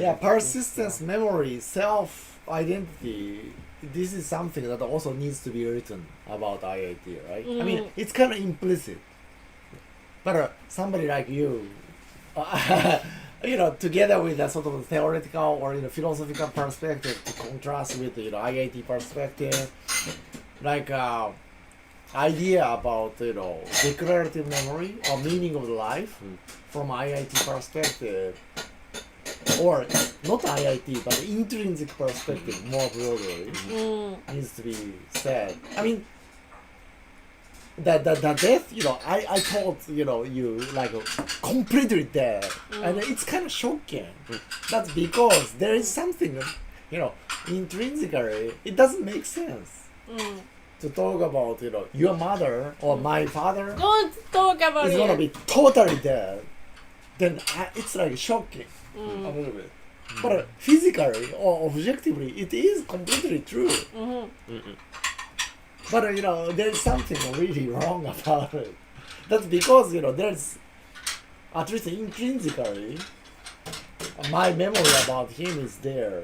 Yeah, persistence, memory, self identity. This is something that also needs to be written about IIT, right? I mean, Mm. it's kind of implicit. But uh, somebody like you, you know, together with a sort of theoretical or you know philosophical perspective to contrast with you know IIT perspective, like uh, idea about you know declarative memory or meaning of life Mm. from IIT perspective or not IIT but intrinsic perspective more broadly Mm. needs to be said. I mean, the the, the death, you know, I, I thought, you know, you like completely dead. And it's kind of shocking. That's because there is something, you know, intrinsically, it doesn't make sense Mm. to talk about, you know, your mother or my father Don't talk about is it. gonna be totally dead. Then I, it's like shocking a Mm. little bit. But uh, physically or objectively, it is completely true. Mhm. But uh, you know, there's something really wrong about it. That's because you know there's at least intrinsically my memory about him is there,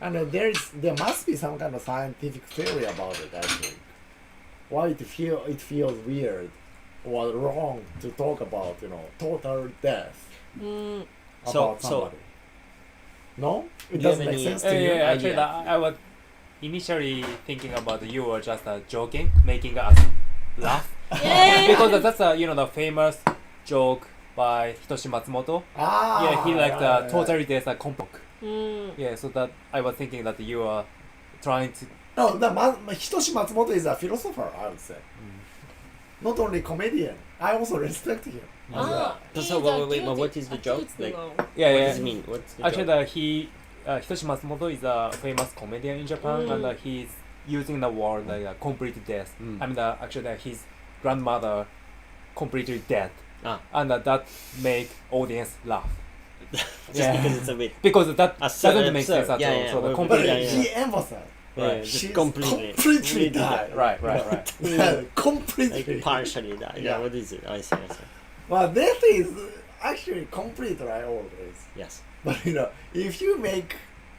and uh, there is there must be some kind of scientific theory about it. I think why it feel it feels weird or wrong to talk about you know total death Mm. So- about so- somebody. no, it Do you doesn't have make any- sense Uh, to you. yeah, yeah, actually, yeah. I I was initially thinking about you were just uh, joking, making us laugh Yeah. because that's uh, you know the famous joke by Hitoshi Matsumoto. Ah, yeah, he like right, uh, right, right. totally there's a compok. Mm. Yeah, so that I was thinking that you are trying to. No, the Ma- Ma- Hitoshi Matsumoto is a philosopher, I would say. Not only comedian, I also respect him. as Ah, a- So, he's so wait, a wait, wait, but guilty- what is the a joke? guilty Like- one. Yeah, What yeah. does it mean? What's the Actually, joke? the, he uh, Hitoshi Matsumoto is a famous comedian in Japan, Mm. and uh, he's using the word like uh, complete death. Mm. I mean, uh, actually, uh, his grandmother completely dead, Ah. and uh, that make audience laugh just yeah. because it's a bit because that Absurd, doesn't make sense absurd. at Yeah, all. yeah, so the we're- But complete Yeah, yeah. he emphasized yeah, Right. just she's completely completely died. Right, right, right. completely. like partially that. Yeah. Yeah. what is it? I see, I see. Well, death is actually complete, right? Always. Yes. But you know, if you make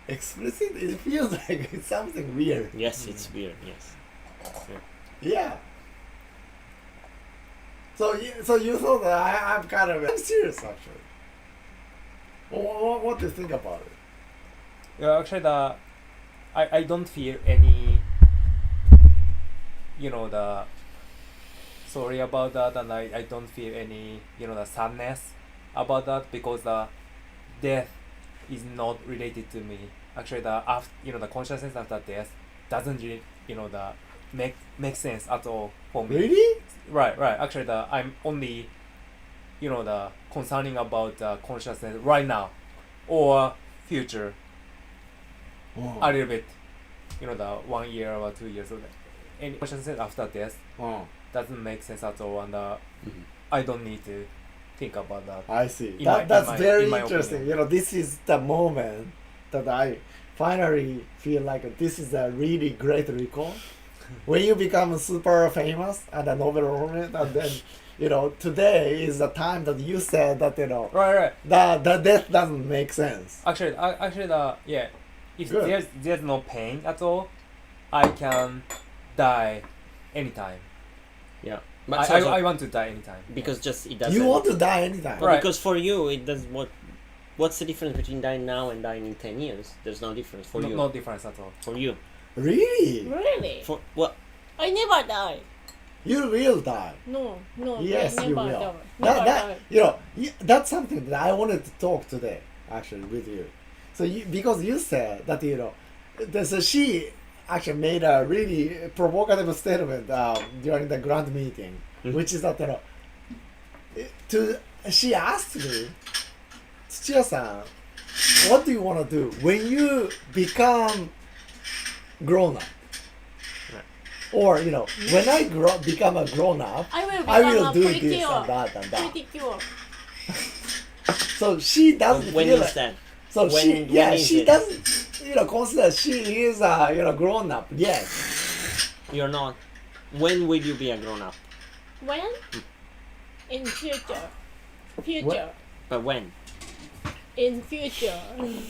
explicit, it feels like it's something weird. Yes, Mm. it's weird. Yes. Yeah. So you, so you thought that I, I'm kind of I'm serious actually. What, what, what do you think about it? Yeah, actually, the I, I don't feel any, you know, the sorry about that, and I, I don't feel any, you know, the sadness about that because the death is not related to me. Actually, the after, you know, the consciousness after death doesn't really, you know, the make make sense at all for me. Really? Right, right. Actually, the I'm only, you know, the concerning about the consciousness right now, or future Oh. a little bit, you know, the one year or two years. Or any consciousness after death Oh, doesn't make sense at all, and uh, Mm-hmm. Mhm. I don't need to think about that. I see. that, In my- in that's my- very in my interesting. opinion. You know, this is the moment that I finally feel like this is a really great recall. when you become super famous and a Nobel laureate, and then, you know, today is the time that you said that, you know, Right, right. the, the death doesn't make sense. Actually, I, actually, the yeah, if Good. there's there's no pain at all, I can die anytime. Yeah. I, But so- I, so- I want to die anytime. because just it doesn't. You want to die anytime. But Right. Because for you, it does what. What's the difference between dying now and dying in ten years? There's no difference for no, you. no difference at all. For you. Really? Really? For well, I never die. You will die. No, no, Yes, never you will. die. Never That, that, die. you know, y- that's something that I wanted to talk today, actually, with you. So you, because you said that, you know, the, so she actually made a really provocative statement um, during the grand meeting, Mhm. which is that, you know, to, she asked me, Tsuchiya-san, what do you want to do when you become grown up? Right. Or, you know, when I grow, become a grown up, I will become I will a do pretty this cure. and that and that. Pretty cure. So she doesn't when feel is like- that? So when- she, when yeah, is she it? doesn't, you know, consider she is a you know grown up. Yes, You're not. When will you be a grown up? Hmm. When? In future. Future. But when? in future.